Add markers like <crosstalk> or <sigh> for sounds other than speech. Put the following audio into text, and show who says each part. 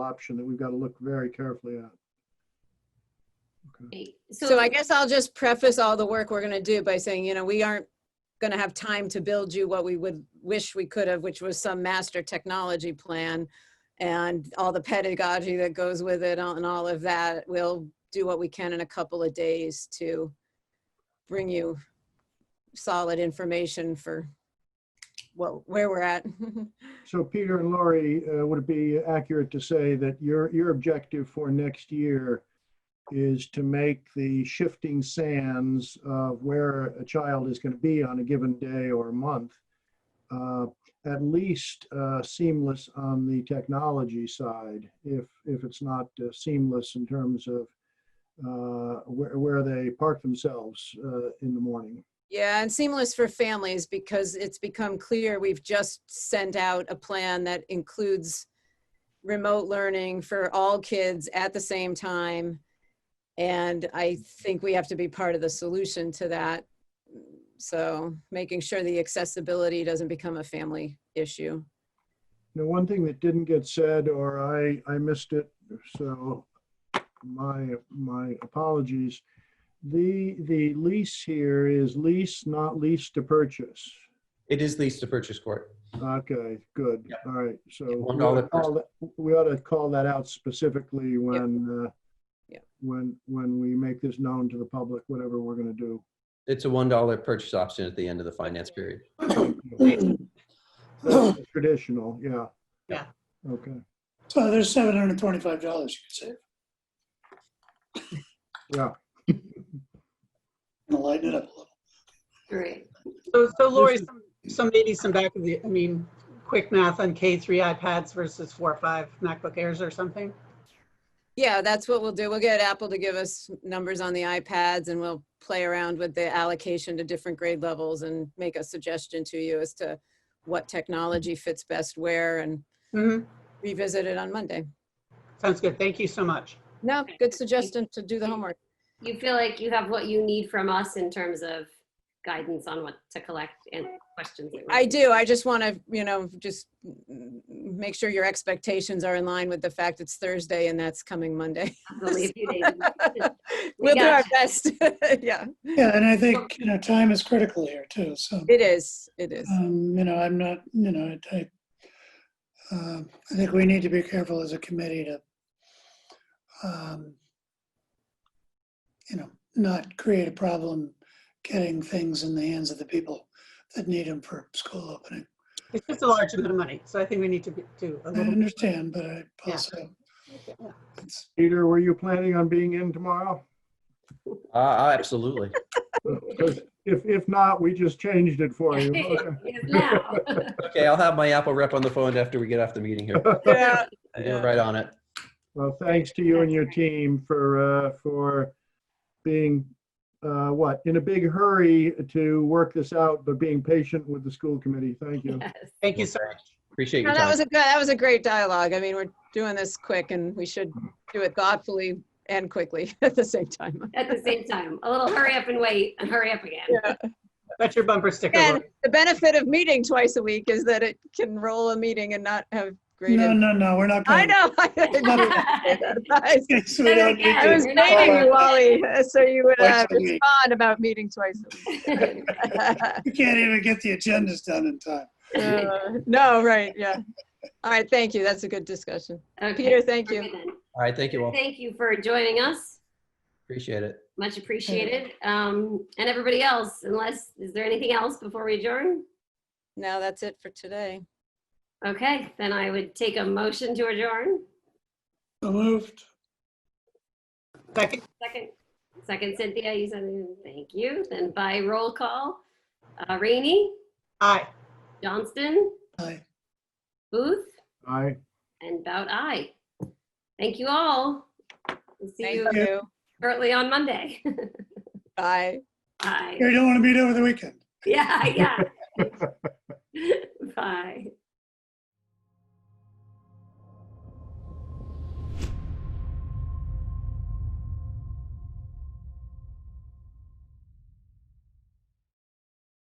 Speaker 1: option that we've got to look very carefully at.
Speaker 2: So I guess I'll just preface all the work we're going to do by saying, you know, we aren't going to have time to build you what we would wish we could have, which was some master technology plan and all the pedagogy that goes with it and all of that. We'll do what we can in a couple of days to bring you solid information for what, where we're at. <laughs>
Speaker 1: So Peter and Laurie, uh, would it be accurate to say that your, your objective for next year is to make the shifting sands of where a child is going to be on a given day or month uh, at least uh, seamless on the technology side, if, if it's not uh, seamless in terms of uh, where, where they park themselves uh, in the morning?
Speaker 2: Yeah, and seamless for families because it's become clear we've just sent out a plan that includes remote learning for all kids at the same time. And I think we have to be part of the solution to that. So making sure the accessibility doesn't become a family issue.
Speaker 1: Now, one thing that didn't get said, or I, I missed it, so my, my apologies. The, the lease here is lease, not lease to purchase.
Speaker 3: It is leased to purchase court.
Speaker 1: Okay, good.
Speaker 3: Yeah.
Speaker 1: All right, so
Speaker 3: Yeah, one
Speaker 1: we ought to
Speaker 3: dollar per-
Speaker 1: call that- we ought to call that out specifically when, uh,
Speaker 2: Yeah.
Speaker 1: when, when we make this known to the public, whatever we're going to
Speaker 2: <clears throat>
Speaker 1: do.
Speaker 3: It's a $1 purchase option at the end of the finance period.
Speaker 1: Traditional, yeah.
Speaker 2: Yeah.
Speaker 1: Okay,
Speaker 4: So there's seven hundred and twenty-five dollars you could save.
Speaker 1: yeah.
Speaker 4: And lighten it up
Speaker 2: <laughs>
Speaker 4: a little.
Speaker 5: Great.
Speaker 6: So, so Lori,
Speaker 1: This is-
Speaker 6: some, some maybe some back of the, I mean, quick math on K three iPads versus four, or five MacBook Airs or something?
Speaker 2: Yeah, that's what we'll do. We'll get Apple to give us numbers on the iPads and we'll play around with the allocation to different grade levels and make a suggestion to you as to what technology fits best where and
Speaker 6: hmm
Speaker 2: revisit it on Monday.
Speaker 6: sounds good. Thank you so much.
Speaker 2: No, good suggestion to do the homework.
Speaker 5: You feel like you have what you need from us in terms of guidance on what to collect and questions. that we're-
Speaker 2: I do. I just want to, you know, just mm, make sure your expectations are in line with the fact it's Thursday and that's coming Monday. <laughs>
Speaker 5: Absolutely, a few days.
Speaker 2: We'll do our
Speaker 5: got
Speaker 2: best. <laughs> Yeah,
Speaker 4: Yeah, and I think, you know, time is critical here too, so,
Speaker 2: it is. It is.
Speaker 4: um, you know, I'm not, you know, I, I, um, I think we need to be careful as a committee to, um, you know, not create a problem getting things in the hands of the people that need them for school opening.
Speaker 6: It's just a large amount of money, so I think we need to be- do a
Speaker 4: I
Speaker 6: little.
Speaker 4: understand, but I also, it's,
Speaker 1: Peter, were you planning on being in tomorrow?
Speaker 3: Uh, uh, absolutely.
Speaker 1: If, if not, we just changed it
Speaker 5: <laughs>
Speaker 1: for you. Okay.
Speaker 5: Yes, now.
Speaker 3: Okay, I'll have my Apple rep on the phone after we get off the meeting here.
Speaker 2: Yeah.
Speaker 3: You're right on it.
Speaker 1: Well, thanks to you and your team for, uh, for being, uh, what, in a big hurry to work this out, but being patient with the school committee. Thank you.
Speaker 5: Yes.
Speaker 6: Thank you so much.
Speaker 3: Appreciate
Speaker 2: No,
Speaker 3: your
Speaker 2: that was
Speaker 3: time.
Speaker 2: a good, that was a great dialogue. I mean, we're doing this quick and we should do it thoughtfully and quickly <laughs> at the same time.
Speaker 5: At the same time, a little hurry up and wait and hurry up again.
Speaker 6: That's your bumper sticker.
Speaker 2: <laughs> And
Speaker 6: Lori.
Speaker 2: the benefit of meeting twice a week is that it can roll a meeting and not have great.
Speaker 4: no,
Speaker 2: impact.
Speaker 4: no, no, we're not.
Speaker 2: I
Speaker 4: going-
Speaker 2: know. <laughs> I was-
Speaker 4: <laughs> Yes, we don't need
Speaker 2: I
Speaker 4: to.
Speaker 2: was baiting you, Wally, <laughs> so you would uh,
Speaker 4: Twice a week.
Speaker 2: respond about meeting twice. a
Speaker 4: <laughs>
Speaker 2: week. <laughs>
Speaker 4: We can't even get the agendas done in time.
Speaker 2: Uh, No, right, yeah. All right, thank you. That's a good discussion.
Speaker 5: Okay.
Speaker 2: Peter, thank
Speaker 5: Okay,
Speaker 2: you.
Speaker 5: then.
Speaker 3: All right, thank you all.
Speaker 5: Thank you for joining us.
Speaker 3: Appreciate it.
Speaker 5: Much appreciated. Um, and everybody else, unless, is there anything else before we adjourn?
Speaker 2: Now that's it for today.
Speaker 5: Okay, then I would take a motion to adjourn.
Speaker 4: So moved.
Speaker 6: Second,
Speaker 5: Second, second Cynthia, you said, it. thank you. Then by roll call, uh, Rainey,
Speaker 6: aye.
Speaker 5: Johnston,
Speaker 4: Aye.
Speaker 5: Booth,
Speaker 1: Aye.
Speaker 5: and Bout I. Thank you all. We'll See you
Speaker 2: Thank
Speaker 4: you.
Speaker 2: you.
Speaker 5: shortly on Monday. <laughs>
Speaker 2: Bye.
Speaker 5: Bye.
Speaker 4: You don't want to meet over the weekend.
Speaker 5: Yeah, yeah. <laughs> Bye.